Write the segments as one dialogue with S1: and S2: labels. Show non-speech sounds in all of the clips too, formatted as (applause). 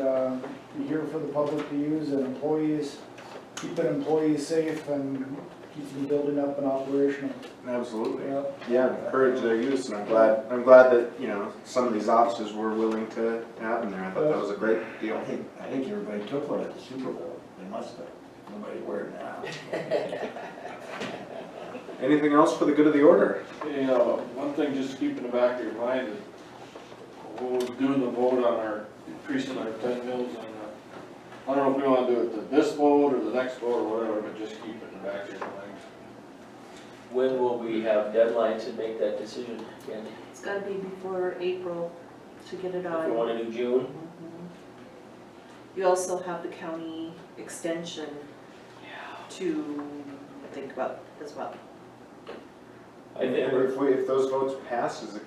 S1: gear uh, for the public to use and employees, keeping employees safe and keeping the building up and operational.
S2: Absolutely.
S1: Yep.
S2: Yeah, encourage their use, and I'm glad, I'm glad that, you know, some of these officers were willing to have them there. I thought that was a great deal.
S3: I think, I think everybody took one at the Super Bowl, they must have, nobody wearing now.
S2: Anything else for the good of the order?
S4: Yeah, uh, one thing just to keep in the back of your mind is we'll do the vote on our, increasing our ten mils on the, I don't know if we wanna do it to this vote or the next vote or whatever, but just keep it in the back of your mind.
S5: When will we have deadlines to make that decision, Candy?
S6: It's gotta be before April to get it
S5: If we
S6: on.
S5: want to do June?
S6: Mhm. You also have the county extension to think about as well.
S5: I think
S2: If we, if those votes pass, is it,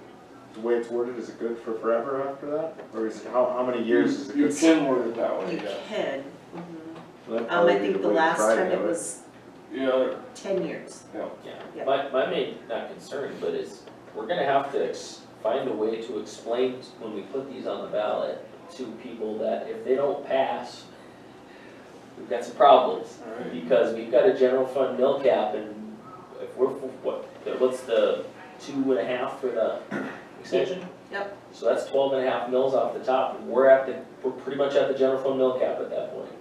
S2: the way it's worded, is it good for forever after that? Or is it, how, how many years is it
S4: You
S2: good?
S4: can word it
S3: Oh,
S4: that
S6: You
S4: way, yeah.
S6: can,
S3: Mm-hmm.
S6: mhm.
S2: That'd
S6: um,
S2: probably
S6: I
S2: be
S6: think the
S2: way to
S6: last
S2: try to
S6: time it
S2: do
S6: was
S4: Yeah,
S6: ten years.
S5: Yeah,
S6: Yeah.
S5: my, my main, not concern, but is, we're gonna have to ex- find a way to explain when we put these on the ballot to people that if they don't pass, we've got some problems.
S4: alright.
S5: Because we've got a general fund mill cap and if we're, f- what, what's the two and a half for the extension?
S6: Yep.
S5: So that's twelve and a half mils off the top, and we're at the, we're pretty much at the general fund mill cap at that point.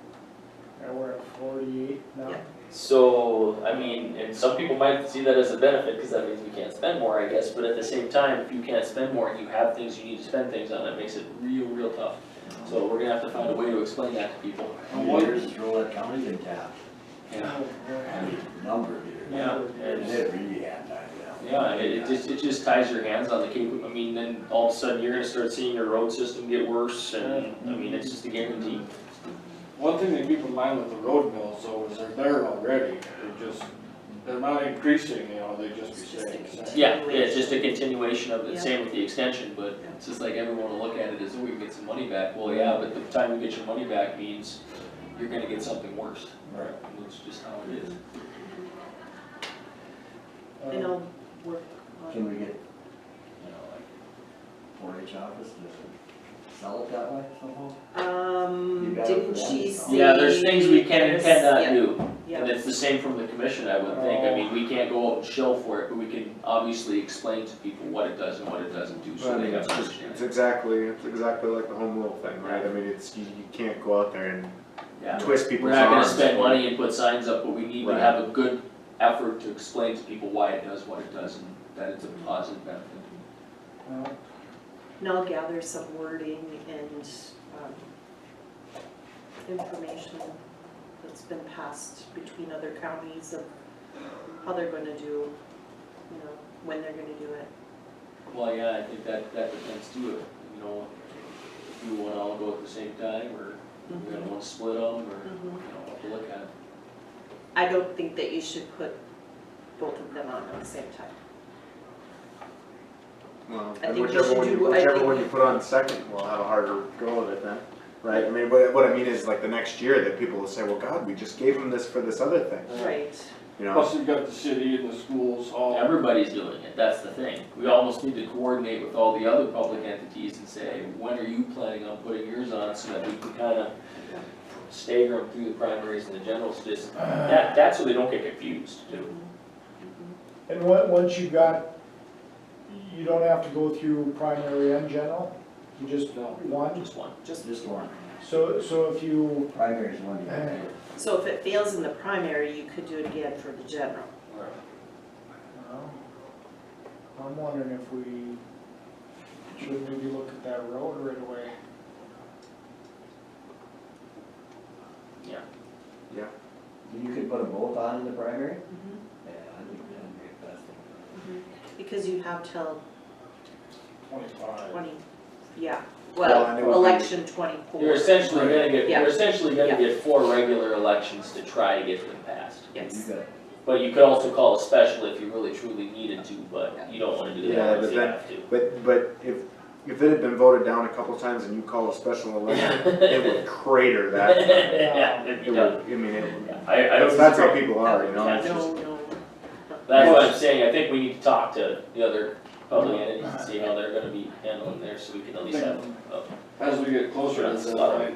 S1: And we're at forty-eight now.
S6: Yeah.
S5: So, I mean, and some people might see that as a benefit, cause that means we can't spend more, I guess, but at the same time, if you can't spend more, you have things you need to spend things on, it makes it real, real tough. So we're gonna have to find a way to explain that to people.
S3: How many years has Rolette County been tapped?
S1: Oh,
S3: I
S1: boy.
S3: mean, number of years.
S5: Yeah,
S3: And
S5: and,
S3: it really had died down.
S5: yeah, it, it just, it just ties your hands on the cable, I mean, then all of a sudden, you're gonna start seeing your road system get worse, and, I mean, it's just a guarantee.
S4: One thing to keep in mind with the road mills though is they're there already, they're just, they're not increasing, you know, they just be
S6: It's just a
S4: staying the same.
S5: Yeah, yeah, it's just a continuation of the
S6: Yeah.
S5: same with the extension, but it's just like everyone will look at it as, oh, you get some money back, well, yeah, but the time you get your money back means you're gonna get something worse.
S3: Right.
S5: And That's just how it is.
S6: And
S1: Um,
S6: I'll work
S3: Uh, Can
S6: on,
S3: we get, you know, like, four H office to sell it that way somehow?
S6: um,
S3: You got it
S6: didn't
S3: for
S6: she
S3: that?
S6: say?
S5: Yeah, there's things we can and cannot
S6: Yeah,
S5: do, and
S6: Yeah,
S5: it's the same from the commission, I would think, I mean, we can't go out and shell for it, but we can obviously explain to people what it does and what it doesn't do,
S2: it.
S5: so
S2: But I
S5: they
S2: mean,
S5: have
S2: it's
S5: to
S2: just,
S5: understand.
S2: it's
S5: it.
S2: exactly, it's exactly like the home rule thing, right? I mean, it's, you, you can't go out there and
S5: Yeah.
S2: twist
S5: We're
S2: people's
S5: not gonna
S2: arms.
S5: spend money and put signs up, but we need to
S2: Right.
S5: have a good effort to explain to people why it does what it does and that it's a positive benefit.
S1: well,
S6: and I'll gather some wording and, um, information that's been passed between other counties of how they're gonna do, you know, when they're gonna do it.
S5: Well, yeah, I think that, that depends too, if, you know, if you wanna all go at the same time or you gonna wanna split them or, you know,
S6: Mhm.
S5: what to look at.
S6: I don't think that you should put both of them on at the same time.
S2: Well,
S6: I
S2: and
S6: think we
S2: whichever
S6: should
S2: one you,
S6: do- I
S2: whichever
S6: think-
S2: one you put on second will have a harder go of it then, right? I mean, what, what I mean is like the next year that people will say, well, God, we just gave them this for this other thing,
S6: Right.
S2: you know?
S4: Plus, you've got the city and the schools all.
S5: Everybody's doing it, that's the thing. We almost need to coordinate with all the other public entities and say, when are you planning on putting yours on so that we can kinda stagger them through the primaries and the generals, just,
S1: uh,
S5: that, that's so they don't get confused too.
S1: And on- once you got, you don't have to go through primary and general, you just
S4: No.
S1: one.
S5: Just one.
S6: Just,
S3: Just one,
S1: So, so if you,
S3: primary is one you gotta do.
S6: so if it fails in the primary, you could do it again for the general.
S4: Right.
S1: well, I'm wondering if we should maybe look at that road right away.
S3: You could put them both on in the primary? Yeah, I think that'd be a best.
S6: Because you have till
S4: Twenty-five.
S6: twenty, yeah,
S2: Well, and it would
S6: well,
S2: be-
S6: election twenty-four.
S5: You're essentially gonna get,
S6: Yeah.
S5: you're essentially gonna get four regular elections to try to get them passed.
S6: Yes.
S3: You got,
S5: But you could also call a special if you really truly needed to, but you don't wanna do
S2: Yeah,
S5: that unless
S2: but
S5: you
S2: then-
S5: have to.
S2: But, but if, if it had been voted down a couple times and you call a special election,
S5: (laughs)
S2: it would crater that.
S6: (laughs)
S5: Yeah, it'd
S2: It
S5: be
S2: would,
S5: done.
S2: I mean, it,
S5: I, I
S2: that's,
S5: don't
S2: that's how
S5: disagree.
S2: people are, you know?
S5: Yeah,
S2: it's just-
S6: No, no,
S5: That's what I'm saying, I think we need to talk to the other public entities and see how they're gonna be handling theirs, so we can at least have a
S4: As we get closer to
S5: That's
S4: the
S5: a lot.
S4: line,